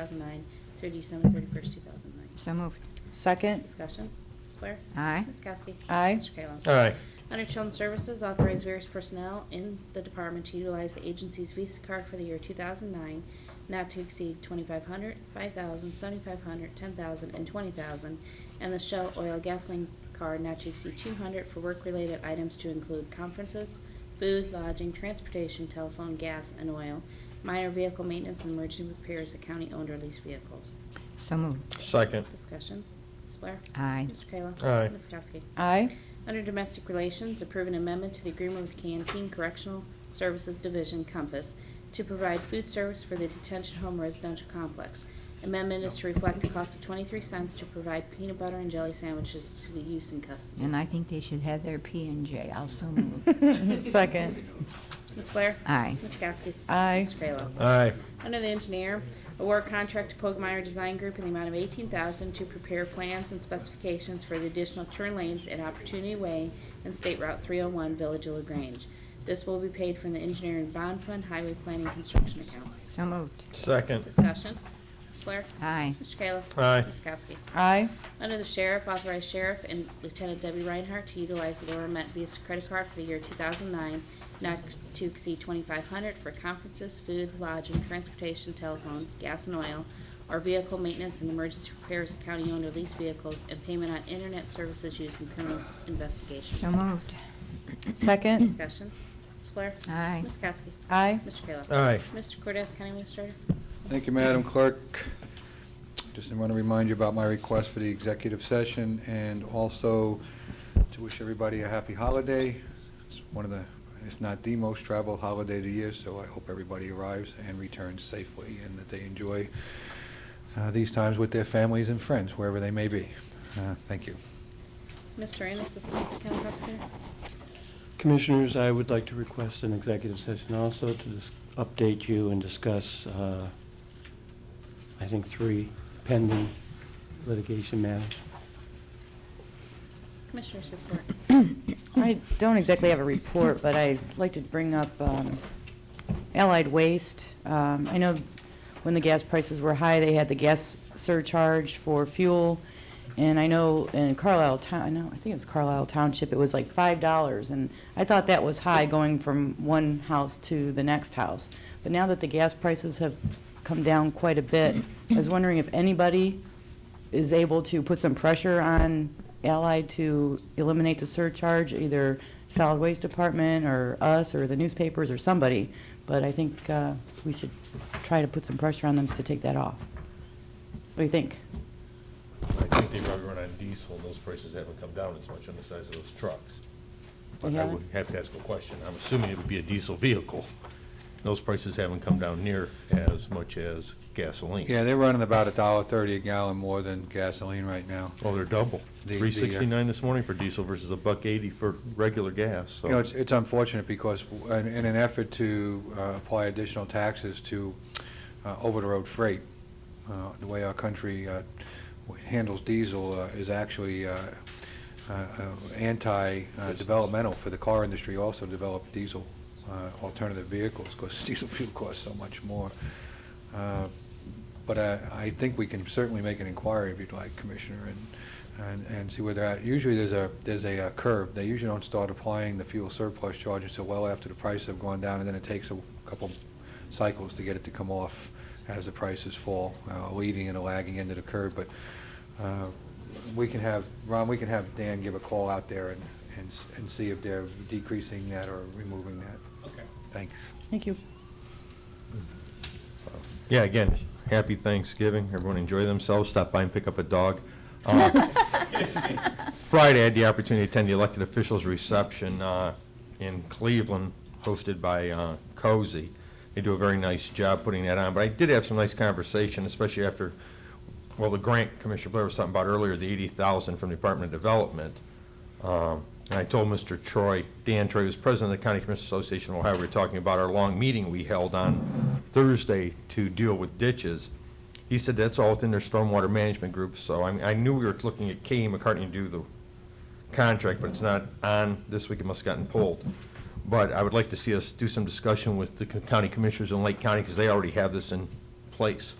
2009 through December 31st, 2009. So moved. Second. Discussion. Ms. Blair? Aye. Ms. Kowski? Aye. Mr. Kayla? Aye. Under Children's Services, authorize various personnel in the department to utilize the agency's Visa card for the year 2009, not to exceed 2,500, 5,000, 7,500, 10,000, and 20,000, and the Shell Oil Gasoline card not to exceed 200 for work-related items to include conferences, food, lodging, transportation, telephone, gas, and oil, minor vehicle maintenance, and emergency repairs of county-owned or leased vehicles. So moved. Second. Discussion. Ms. Blair? Aye. Mr. Kayla? Aye. Ms. Kowski? Aye. Under Domestic Relations, approve an amendment to the agreement with Canteen Correctional Services Division Compass to provide food service for the detention home residential complex. Amendment is to reflect a cost of 23 cents to provide peanut butter and jelly sandwiches to the youth in custody. And I think they should have their P and J. I'll so move. Second. Ms. Blair? Aye. Ms. Kowski? Aye. Mr. Kayla? Aye. Under the engineer, award contract to Pogmeyer Design Group in the amount of eighteen thousand to prepare plans and specifications for the additional turn lanes at Opportunity Way and State Route three oh one, Village of LaGrange. This will be paid from the engineering bond fund, highway planning, construction account. So moved. Second. Discussion. Ms. Blair? Aye. Mr. Kayla? Aye. Ms. Kowski? Aye. Under the sheriff, authorize sheriff and Lieutenant Debbie Reinhardt to utilize the Laura Met Visa credit card for the year 2009, not to exceed 2,500 for conferences, food, lodging, transportation, telephone, gas and oil, or vehicle maintenance and emergency repairs of county-owned or leased vehicles, and payment on internet services used in criminal investigations. So moved. Second. Discussion. Ms. Blair? Aye. Ms. Kowski? Aye. Mr. Kayla? Aye. Mr. Cortez, County Administrator? Thank you, Madam Clerk. Just want to remind you about my request for the executive session and also to wish everybody a happy holiday. It's one of the, if not the most traveled holiday of the year, so I hope everybody arrives and returns safely and that they enjoy uh, these times with their families and friends, wherever they may be. Uh, Thank you. Mr. Ennis, Assistant County Prosecutor? Commissioners, I would like to request an executive session also to dis- update you and discuss, uh, I think, three pending litigation matters. Commissioners report. I don't exactly have a report, but I'd like to bring up um, Allied Waste. Um, I know when the gas prices were high, they had the gas surcharge for fuel, and I know in Carlisle Town, I know, I think it was Carlisle Township, it was like $5, and I thought that was high going from one house to the next house. But now that the gas prices have come down quite a bit, I was wondering if anybody is able to put some pressure on Allied to eliminate the surcharge, either solid waste department or us or the newspapers or somebody. But I think uh, we should try to put some pressure on them to take that off. What do you think? I think they probably run on diesel, and those prices haven't come down as much on the size of those trucks. But I Yeah. would have to ask a question. I'm assuming it would be a diesel vehicle. Those prices haven't come down near as much as gasoline. Yeah, they're running about a dollar thirty a gallon more than gasoline right now. Oh, they're double. The- the, uh, Three sixty-nine this morning for diesel versus a buck eighty for regular gas, You know, so. it's, it's unfortunate because in, in an effort to uh, apply additional taxes to uh, over-the-road freight, uh, the way our country uh, handles diesel uh, is actually uh, uh, uh, anti-developmental for the car industry also to develop diesel uh, alternative vehicles because diesel fuel costs so much more. Uh, But I, I think we can certainly make an inquiry if you'd like, Commissioner, and, and, and see where they're at. Usually there's a, there's a uh, curve. They usually don't start applying the fuel surplus charge until well after the prices have gone down, and then it takes a couple cycles to get it to come off as the prices fall, uh, leading and lagging into the curve. But uh, we can have, Ron, we can have Dan give a call out there and, and, s- and see if they're decreasing that or removing that. Okay. Thanks. Thank you. Yeah, again, happy Thanksgiving. Everyone enjoy themselves. Stop by and pick up a dog. Uh, Friday, I had the opportunity to attend the elected officials reception uh, in Cleveland, hosted by uh, Cozy. They do a very nice job putting that on, but I did have some nice conversation, especially after, well, the grant Commissioner Blair was talking about earlier, the 80,000 from the Department of Development. Um, And I told Mr. Troy, Dan Troy, who's president of the County Commissioners Association of Ohio, we were talking about our long meeting we held on Thursday to deal with ditches. He said that's all within their stormwater management group, so I, I knew we were looking at K McCartney to do the contract, but it's not on this week, it must have gotten pulled. But I would like to see us do some discussion with the county commissioners in Lake County, because they already have this in place.